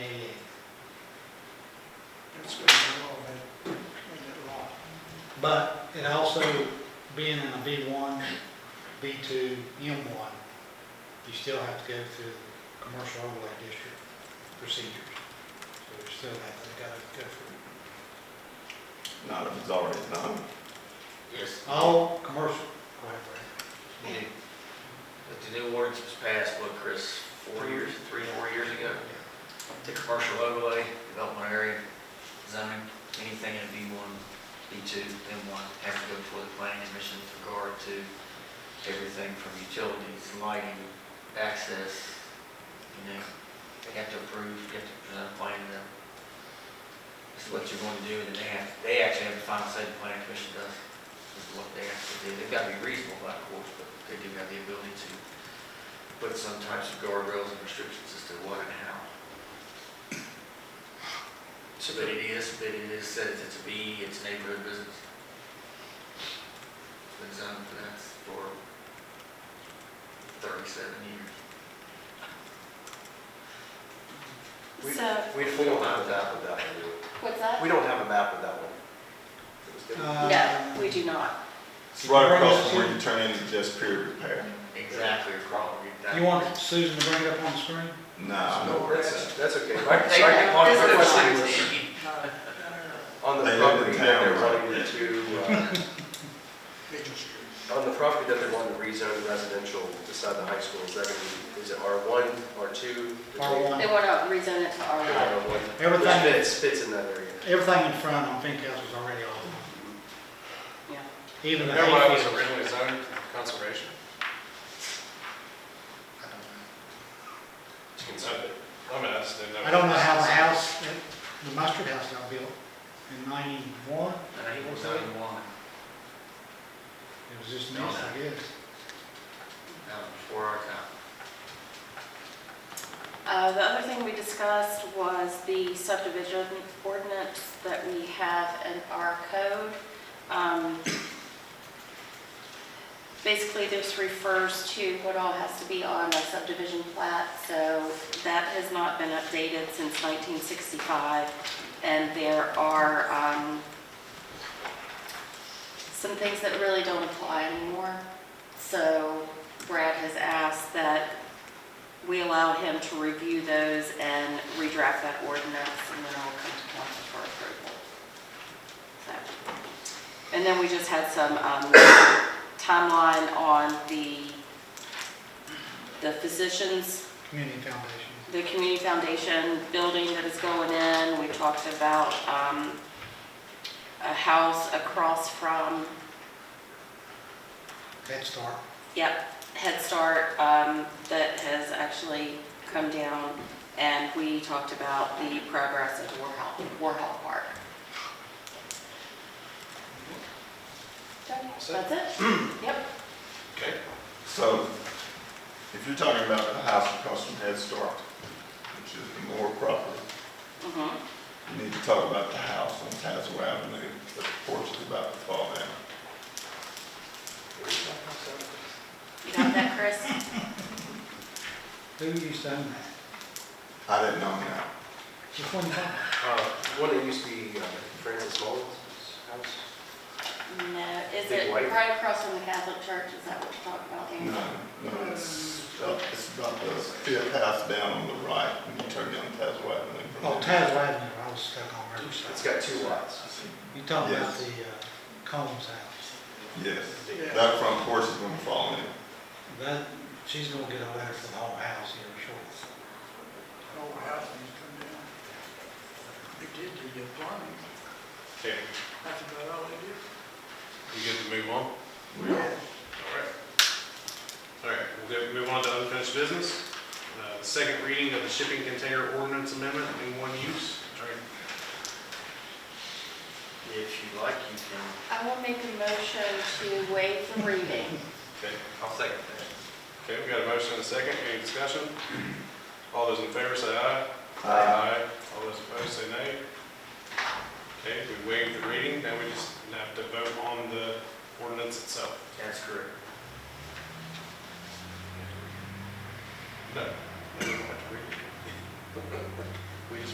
But it also, being in a B1, B2, M1, you still have to go through the commercial overlay district procedures. So you still have to go, go through. Not if it's already done. Yes, All commercial, right, right. the new- but the new ordinance was passed, what, Chris, four years, three, four years ago? The commercial overlay, development area, zoning, anything in B one, B two, M one, have to go before the planning commission with regard to everything from utilities, lighting, access, you know, they have to approve, you have to present a plan to them. This is what you're going to do, and then they have, they actually have the final say, the planning commission does, is what they have to do. They've got to be reasonable, of course, but they do have the ability to put some types of guardrails and restrictions as to what and how. So that it is, that it is, said it's a B, it's neighborhood business. Been zoned for that for thirty-seven years. We- So, We We don't don't have have a map of that one, do we? what's that? We don't have a map of that one. It was different. Uh, No, we do not. It's right across from where you turn into just pure repair. Exactly, probably. that- You want Susan to bring it up on the screen? Nah, No, that's, that's okay. Right, Right, they right, have on the one of front those side lines. was- On They the live in property that town, they're right, wanting yeah. to, uh, on the property that they're wanting to rezone to residential beside the high school, is that gonna be, is it R one, R two? They R1, want to rezone it to R1. Everything- Which fits, fits in that area. everything in front on Pink House was already all, Yeah. even the Remember when it was hayfield. originally zoned conservation? I don't know. I mean, that's, they never. I don't know how the house, the mustard house got built in ninety-one, Ninety-one, ninety-one, it was just mess, I guess. that was before our time. Uh, The other thing we discussed was the subdivision ordinance that we have in our code. Um, Basically, this refers to what all has to be on a subdivision plat, so that has not been updated since 1965. And there are um, some things that really don't apply anymore. So Brad has asked that we allow him to review those and redraft that ordinance, and then I'll come to council for approval. So, And then we just had some um, timeline on the, the physicians, Community Foundation. the community foundation building that is going in. We talked about um, a house across from Head Start. Yep, Head Start, um, that has actually come down, and we talked about the progress of Warhol, Warhol Park. That's it? Yep. Okay. so if you're talking about the house across from Head Start, which is the Moore property, Mhm. you need to talk about the house on Tazewell Avenue, the porch is about to fall down. You got that, Chris? Who used to own that? I didn't know that. Which one you talking about? Uh, One that used to be uh, Francis Mullins' house? No, is Big it white? right across from the Catholic Church, is that what you're talking about, Aaron? No, no, it's, up- it's about the fifth house down on the right when you turn down Tazewell Avenue. from Oh, there. Taz Avenue, I was stuck on It's Riverside. got two lots. You talking about Yes. the uh, Combs house? Yes, Yeah. that front porch is gonna fall in. That, she's gonna get a letter for the whole house here shortly. whole house needs to come down. They did do the plumbing, Okay, that's about all they did. we good to move on? All We are right. All right, we'll go, move on to unfinished business. Uh, the Second reading of the shipping container ordinance amendment in one use. All right, If you like, you can, I will make a motion to waive the reading. okay. I'll second that. Okay, we got a motion and a second, any discussion? All those in favor say aye. Aye.